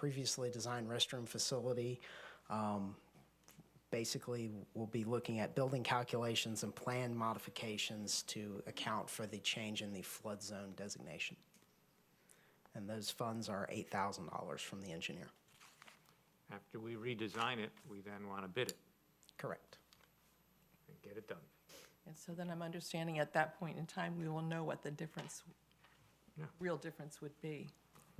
previously designed restroom facility. Um, Basically, we'll be looking at building calculations and plan modifications to account for the change in the flood zone designation. And those funds are $8,000 from the engineer. After we redesign it, we then want to bid it Correct. and get it done. And so then I'm understanding at that point in time, we will know what the difference, Yeah. real difference would be.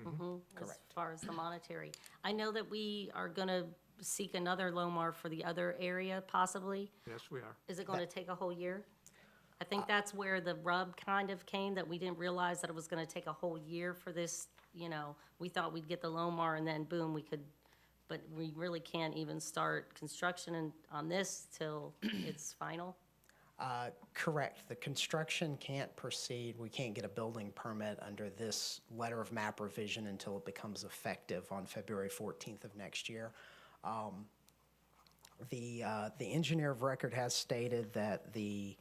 Correct. As far as the monetary. I know that we are gonna seek another Lomar for the other area possibly. Yes, we are. Is it gonna take a whole year? I think that's where the rub kind of came, that we didn't realize that it was gonna take a whole year for this, you know, we thought we'd get the Lomar and then boom, we could, but we really can't even start construction and, on this till it's final. Uh, Correct. The construction can't proceed, we can't get a building permit under this letter of map revision until it becomes effective on February 14th of next year. Um, The, uh, the engineer of record has stated that the,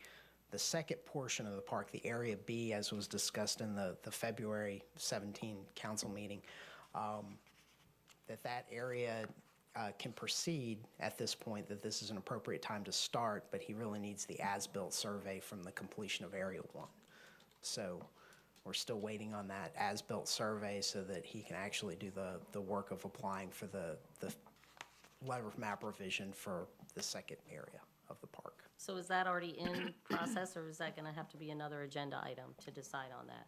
the second portion of the park, the Area B, as was discussed in the, the February 17 council meeting, um, that that area uh, can proceed at this point, that this is an appropriate time to start, but he really needs the as-built survey from the completion of Area 1. So we're still waiting on that as-built survey so that he can actually do the, the work of applying for the, the letter of map revision for the second area of the park. So is that already in process or is that gonna have to be another agenda item to decide on that?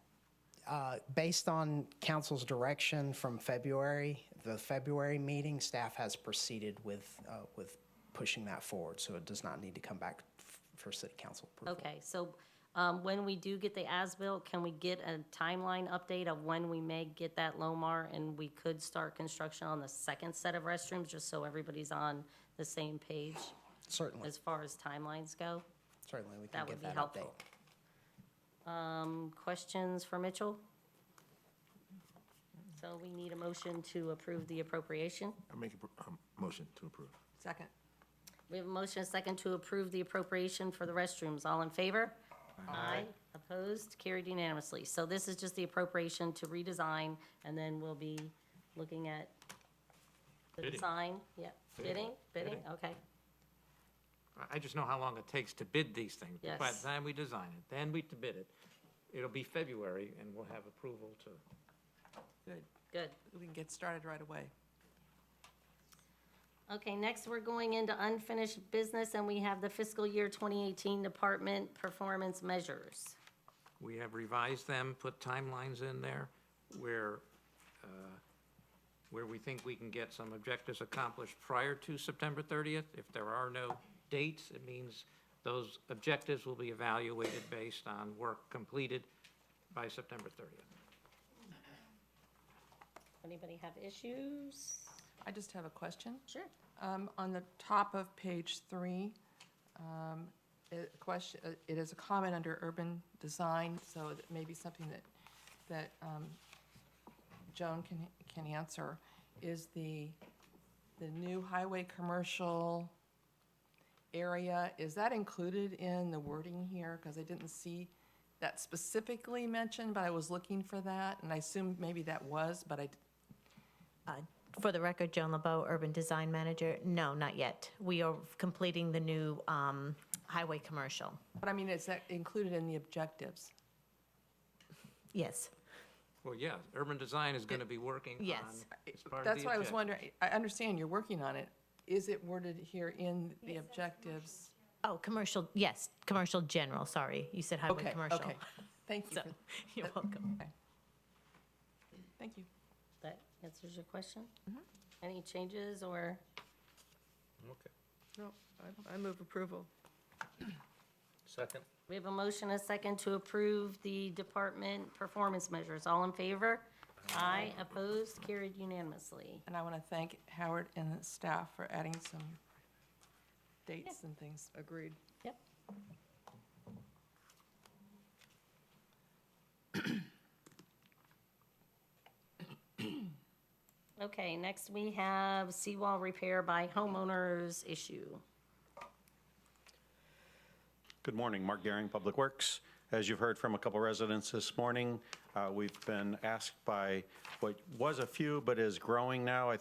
Uh, Based on council's direction from February, the February meeting, staff has proceeded with, uh, with pushing that forward, so it does not need to come back f- for city council approval. Okay, so um, when we do get the as-built, can we get a timeline update of when we may get that Lomar? And we could start construction on the second set of restrooms, just so everybody's on the same page Certainly, as far as timelines go? certainly, we can That would get be that update. helpful. Um, Questions for Mitchell? So we need a motion to approve the appropriation. I make a pro- um, motion to approve. Second. We have a motion and a second to approve the appropriation for the restrooms. All in favor? Aye. Opposed? Carried unanimously. So this is just the appropriation to redesign, and then we'll be looking at the Bidding. design. Yeah, bidding, bidding, Bidding. okay. I- I just know how long it takes to bid these things. But By the Yes. time we design it, then we to bid it, it'll be February and we'll have approval to, Good. Good. We can get started right away. Okay, next, we're going into unfinished business, and we have the fiscal year 2018 department performance measures. we have revised them, put timelines in there where, uh, where we think we can get some objectives accomplished prior to September 30th. If there are no dates, it means those objectives will be evaluated based on work completed by September 30th. Anybody have issues? I just have a question. Sure. Um, On the top of page three, um, it- question, uh, it is a comment under urban design, so it may be something that, that um, Joan can, can answer, is the, the new highway commercial area, is that included in the wording here? Because I didn't see that specifically mentioned, but I was looking for that, and I assumed maybe that was, but I, d- For the record, Joan LeBeau, Urban Design Manager, no, not yet. We are completing the new um, highway commercial. but I mean, is that included in the objectives? Yes, Well, yeah, urban design is gonna be working on. Yes. as part of That's the why I was objective. wondering, I understand you're working on it. Is it worded here in the objectives? oh, commercial, yes, commercial general, sorry. You said highway Okay, commercial. okay. Thank you. So, for- You're welcome. Thank you. That answers your question? Any changes or? No, I, I move approval. Second. We have a motion, and a second, to approve the department performance measures. All in favor? Aye, opposed, carried unanimously. And I want to thank Howard and his staff for adding some dates and things. Agreed. Yep. Okay, next we have seawall repair by homeowners issue. Good morning, Mark Garing, Public Works. As you've heard from a couple residents this morning, uh, we've been asked by what was a few but is growing now, I think